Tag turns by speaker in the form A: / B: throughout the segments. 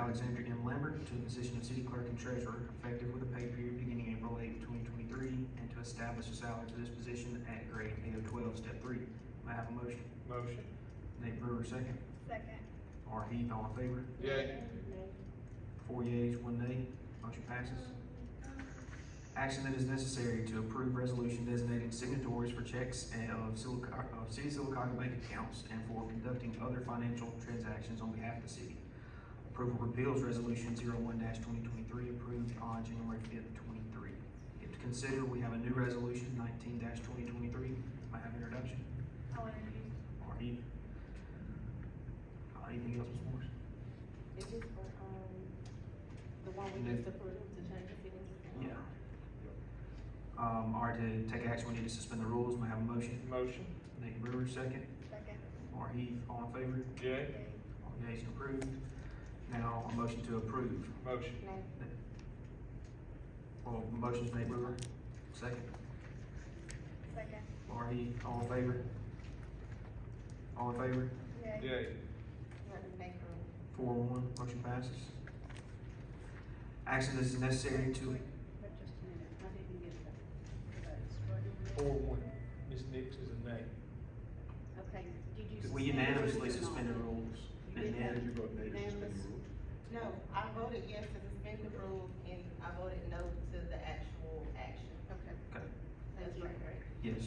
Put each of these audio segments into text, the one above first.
A: Alexander M. Lambert to the position of city clerk and treasurer effective with a pay period beginning April eighth, twenty twenty-three, and to establish a salary for this position at grade A of twelve, step three. May I have a motion?
B: Motion.
A: Nate Brewer, second.
C: Second.
A: R. Heath, all in favor?
B: Yay.
A: Four yeas, one nay. Motion passes. Action that is necessary to approve resolution designating signatories for checks and of Silico- of City of Silicotta bank accounts and for conducting other financial transactions on behalf of the city. Approval repeals resolution zero one twenty twenty-three approved on January fifth, twenty-three. If to consider, we have a new resolution nineteen twenty twenty-three. May I have introduction?
C: I'll introduce.
A: Or Eve? Uh, Anything else, Ms. Morris?
D: It's just for, um, the one we just approved to change the city.
A: Yeah. Um, all right, to take action, we need to suspend the rules. May I have a motion?
B: Motion.
A: Nate Brewer, second.
C: Second.
A: Or Heath, all in favor?
B: Yay.
C: Yay.
A: All yeas approved. Now, a motion to approve.
B: Motion.
D: Nay.
A: Well, motion's Nate Brewer, second.
C: Second.
A: Or Heath, all in favor? All in favor?
C: Yay.
B: Yay.
D: Let me make a-
A: Four one, motion passes. Action is necessary to,
C: But just a minute,
D: I didn't get that.
C: that's what it
B: Four one. Ms. Nix is a nay.
D: Okay, did
A: we
D: you? suspend the
A: unanimously
D: rules or not?
A: suspend the rules.
D: You
A: And
D: did
A: then-
D: that.
E: No, I voted yes to suspend the rules and I voted no to the actual action.
D: Okay.
A: Okay.
D: That's right, right?
A: Yes.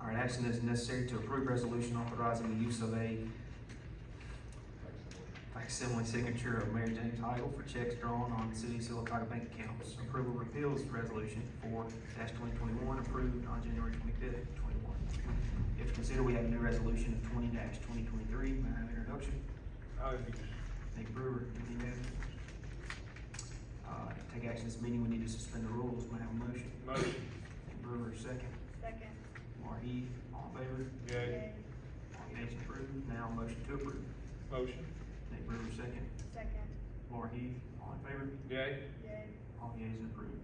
A: All right, action is necessary to approve resolution authorizing the use of a facsimile signature of Mary James Heigl for checks drawn on city of Silicotta bank accounts. Approval repeals resolution four twenty twenty-one approved on January twenty-fifth, twenty-one. If considered, we have a new resolution of twenty twenty twenty-three. May I have an introduction?
B: I'll introduce.
A: Nate Brewer, any manager? Uh, to take action this meeting, we need to suspend the rules. May I have a motion?
B: Motion.
A: Nate Brewer, second.
C: Second.
A: Laura Heath, all in favor?
B: Yay.
C: Yay.
A: All yeas approved. Now, motion to approve.
B: Motion.
A: Nate Brewer, second.
C: Second.
A: Laura Heath, all in favor?
B: Yay.
C: Yay.
A: All yeas approved.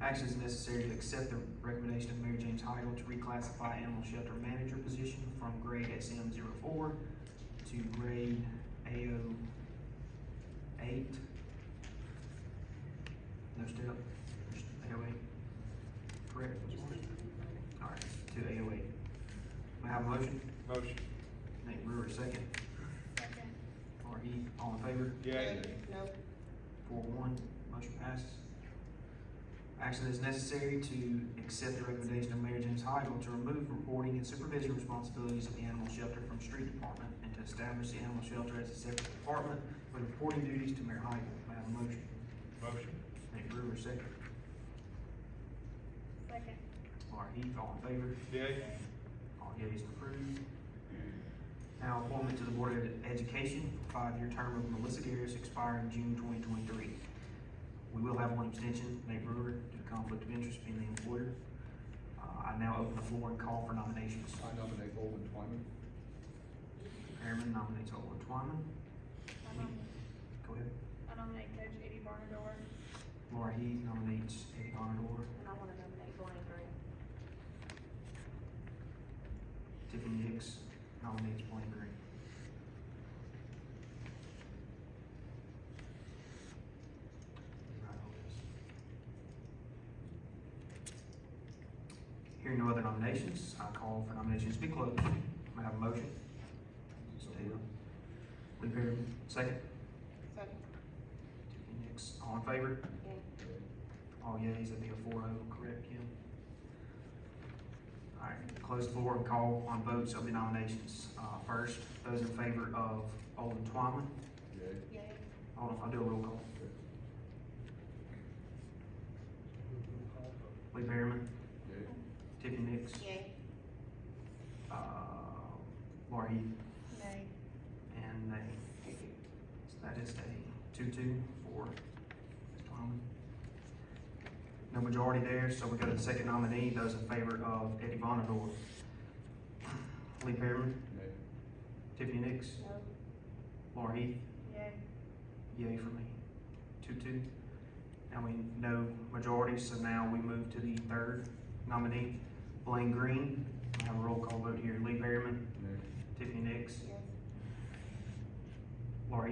A: Action is necessary to accept the recommendation of Mary James Heigl to reclassify animal shelter manager position from grade SM 4 to grade AO eight. No step, AO eight. Correct, Ms. Morris? All right, to AO eight. May I have a motion?
B: Motion.
A: Nate Brewer, second.
C: Second.
A: Or Heath, all in favor?
B: Yay.
E: No,
A: Four one, motion passes. Action is necessary to accept the recommendation of Mayor James Heigl to remove reporting and supervision responsibilities of the animal shelter from street department and to establish the animal shelter as a separate department with reporting duties to Mayor Heigl. May I have a motion?
B: Motion.
A: Nate Brewer, second.
C: Second.
A: Laura Heath, E, all in favor?
B: Yay.
A: All yeas approved. Now appointment to the Board of Education for five-year term of Melissa Garris expiring June twenty twenty-three. We will have one abstention, Nate Brewer, due to conflict of interest being the employer. Uh, I now open the floor and call for nominations.
F: I nominate Owen Twyman.
A: Chairman nominates Owen Twyman.
C: I nom-
A: Go ahead.
C: I nominate Coach Eddie Barnador.
A: Laura Heath nominates Eddie Bonador.
D: And I wanna nominate Blaine Green.
A: Tiffany Hicks nominates Blaine Green. Hearing no other nominations, I call for nominations to be closed. May I have a motion? Steve. Lee Perry, second.
E: second,
A: Tiffany Hicks, all in favor?
D: Yay.
A: All yeas, that'd be a four oh, correct, Kim? All right, close the floor and call on votes of the nominations. Uh, first, those in favor of Alden Twyman,
F: Yay.
E: yay,
A: hold on, I'll do a roll call. Lee Perryman,
F: Yay.
A: Tiffany Nix,
E: yay,
A: uh, Laura Heath,
C: Nay.
A: and a, so that is a two-two for Ms. Twyman. No majority there, so we go to the second nominee, those in favor of Eddie Bonador. Lee Perryman,
F: Yay.
A: Tiffany Nix,
D: No.
A: Laura Heath,
C: Yay.
A: Yay for me. Two, two. And we know majority, so now we move to the third nominee, Blaine Green. I have a roll call vote here. Lee Perryman,
F: Yay.
A: Tiffany Nix,
D: Yes.
A: Laura